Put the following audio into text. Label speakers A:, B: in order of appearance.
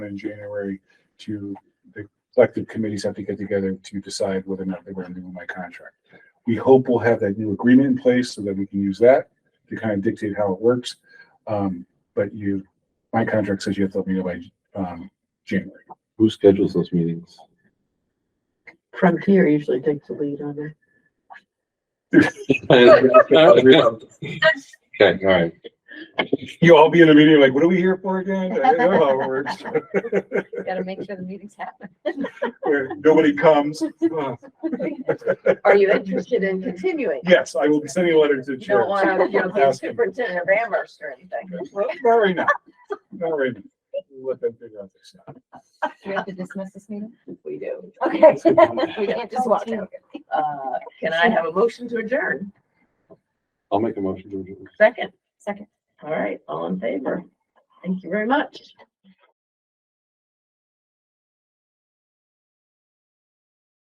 A: in January to the collective committees have to get together to decide whether or not they're going to renew my contract. We hope we'll have that new agreement in place so that we can use that to kind of dictate how it works. Um, but you, my contract says you have to let me know by, um, January.
B: Who schedules those meetings?
C: Frontier usually takes the lead on it.
B: Okay, all right.
A: You all be in a meeting like, what are we here for again? I don't know how it works.
D: Gotta make sure the meetings happen.
A: Where Nobody comes. Uh,
C: Are you interested in continuing?
A: Yes, I will be sending a letter to the
C: You don't
A: church.
C: want to, you don't be
A: Ask him.
C: superintendent of Amherst or anything.
A: Well, Not right now. Not right now. We'll Let them figure out their stuff.
D: Do we have to dismiss this meeting?
C: We do.
D: Okay. We can't just walk out.
C: Uh, can I have a motion to adjourn?
B: I'll make a motion to adjourn.
C: Second.
D: Second.
C: All right, all in favor? Thank you very much.